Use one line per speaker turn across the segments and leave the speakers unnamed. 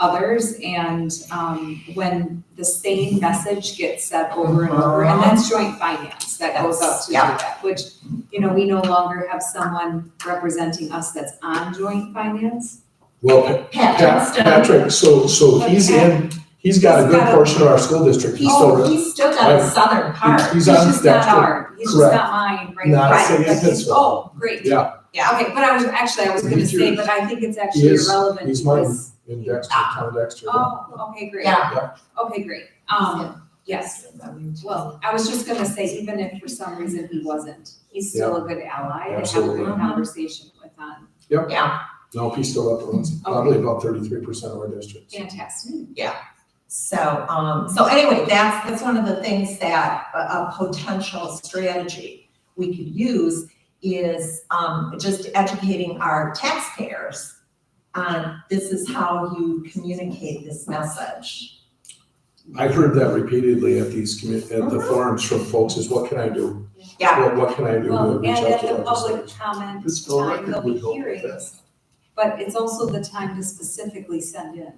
others. And um, when the same message gets said over and over, and that's joint finance that goes up to do
Yeah.
that, which, you know, we no longer have someone representing us that's on joint finance.
Well, Pa-
Pat
Pat-
Johnstone.
Patrick, so, so he's in, he's got a
He's
good
got a-
portion of our school district. He's still,
Oh,
re-
he's still got the southern part.
he's
He's
on
just not
Dexter.
our, he's just
Correct.
not mine, right?
Not
Right,
saying
but he's-
that's-
Oh, great.
Yeah.
Yeah, okay, but I was, actually, I was gonna
He's
say,
yours.
but I think it's actually
is-
irrelevant
he's mine.
because,
in Dexter, town of Dexter.
oh, okay, great.
Yeah.
Okay, great. Um, yes, well, I was just gonna say, even if for some reason he wasn't, he's still a good ally to have a
Absolutely.
good conversation with um, on,
Yeah,
No, he's still up runs probably about thirty-three percent of our distriicts.
fantastic.
so, um, so anyway, that's, that's one of the things that a, a potential strategy we could use is, um, just educating our taxpayers on this is how you communicate this message.
I've heard that repeatedly at these commu- at
Uh-huh.
the forums from folks is what can I do?
Yeah.
What, what can I do to
Well, and
reach out
at
to
the public
legislators?
comment
This bill
time,
record
there'll
would
be
help with
hearings, but it's also the time to specifically send in.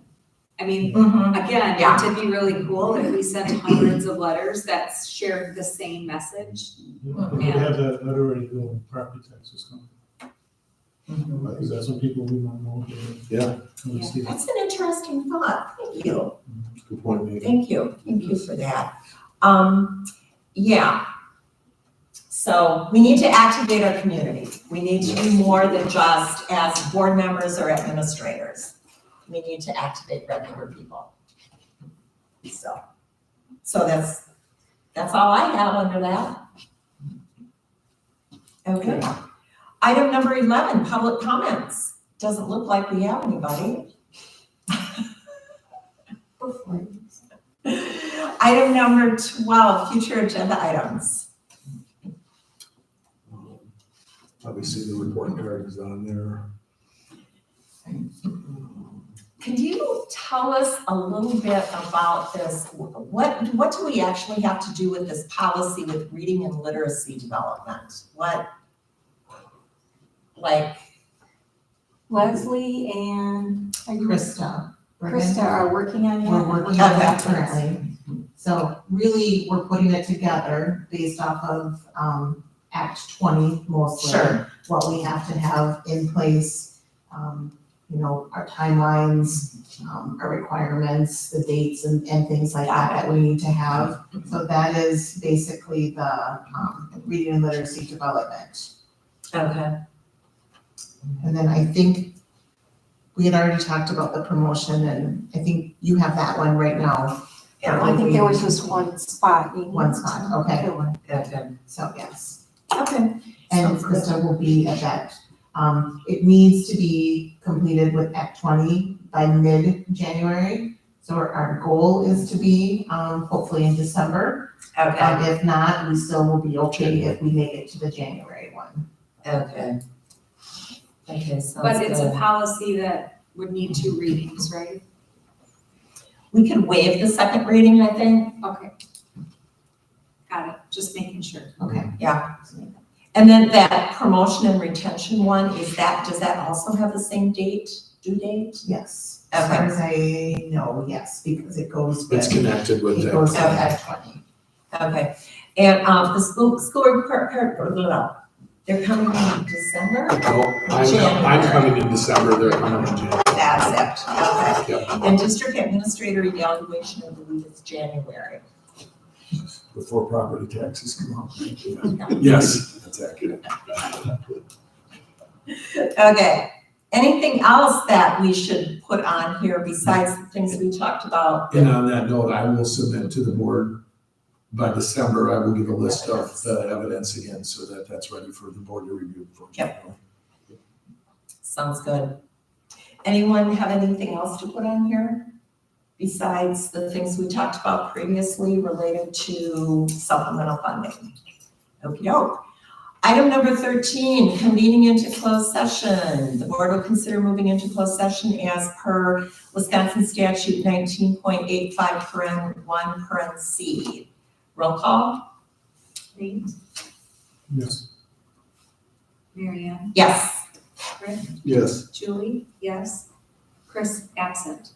I mean,
Mm-hmm.
Again,
Yeah.
it'd be really cool if we sent hundreds of letters that shared the same message.
We could have that letter already doing property taxes coming. Because that's what people we might know.
Yeah.
Let us see.
That's an interesting thought, thank you.
Good point, Nate.
Thank you, thank you for that. Um, yeah. So we need to activate our community. We need to do more than just as board members or administrators. We need to activate regular people. So, so that's, that's all I have under that. Okay. Item number eleven, public comments. Doesn't look like we have anybody. Item number twelve, future agenda items.
Obviously, the report card is on there.
Could you tell us a little bit about this? What, what do we actually have to do with this policy with reading and literacy development? What? Like
Leslie and
Krista. we're gonna-
Krista are working on that.
We're working on that
Okay.
currently. So really, we're putting it together based off of um Act twenty mostly.
Sure.
What we have to have in place, um, you know, our timelines, um, our requirements, the dates and and things like that that we need to have. So that is basically the um reading and literacy development.
Okay.
And then I think we had already talked about the promotion and I think you have that one right now.
Yeah,
I think there was just one spot. you-
One spot, okay.
There was.
okay.
So yes,
Okay.
and
Sounds good.
Krista will be at that. Um, it needs to be completed with Act twenty by mid-January. So our- our goal is to be, um, hopefully in December.
Okay,
Um, if not, we still will be okay if we make it to the January one.
okay. Okay, sounds good.
But it's a policy that would need two readings, right?
We could waive the second reading, I think.
Okay. Got it, just making sure.
Okay.
Yeah. And then that promotion and retention one, is that, does that also have the same date, due date?
Yes. As far as I know, yes, because it goes with.
It's connected with
It goes
that.
with
Okay.
Act twenty.
Okay, and, um, the school, school report, per- per- blah, blah. they're coming in December?
No, I'm, I'm coming in December, they're coming in January.
That's it, okay.
Yeah,
And district administrator evaluation, I believe it's January.
before property taxes come out. Yes. That's accurate.
Okay, anything else that we should put on here besides the things we talked about?
And on that note, I will submit to the board, by December, I will give a list of the evidence again, so that that's ready for the board to review. for January.
Sounds good. Anyone have anything else to put on here? Besides the things we talked about previously related to supplemental funding? Okey-doke. Item number thirteen, convening into closed session. The board will consider moving into closed session as per Wisconsin statute nineteen point eight five paren one paren C. Roll call?
Nate,
Yes.
Marianne,
Yes.
Rick,
Yes.
Julie, yes. Chris, absent.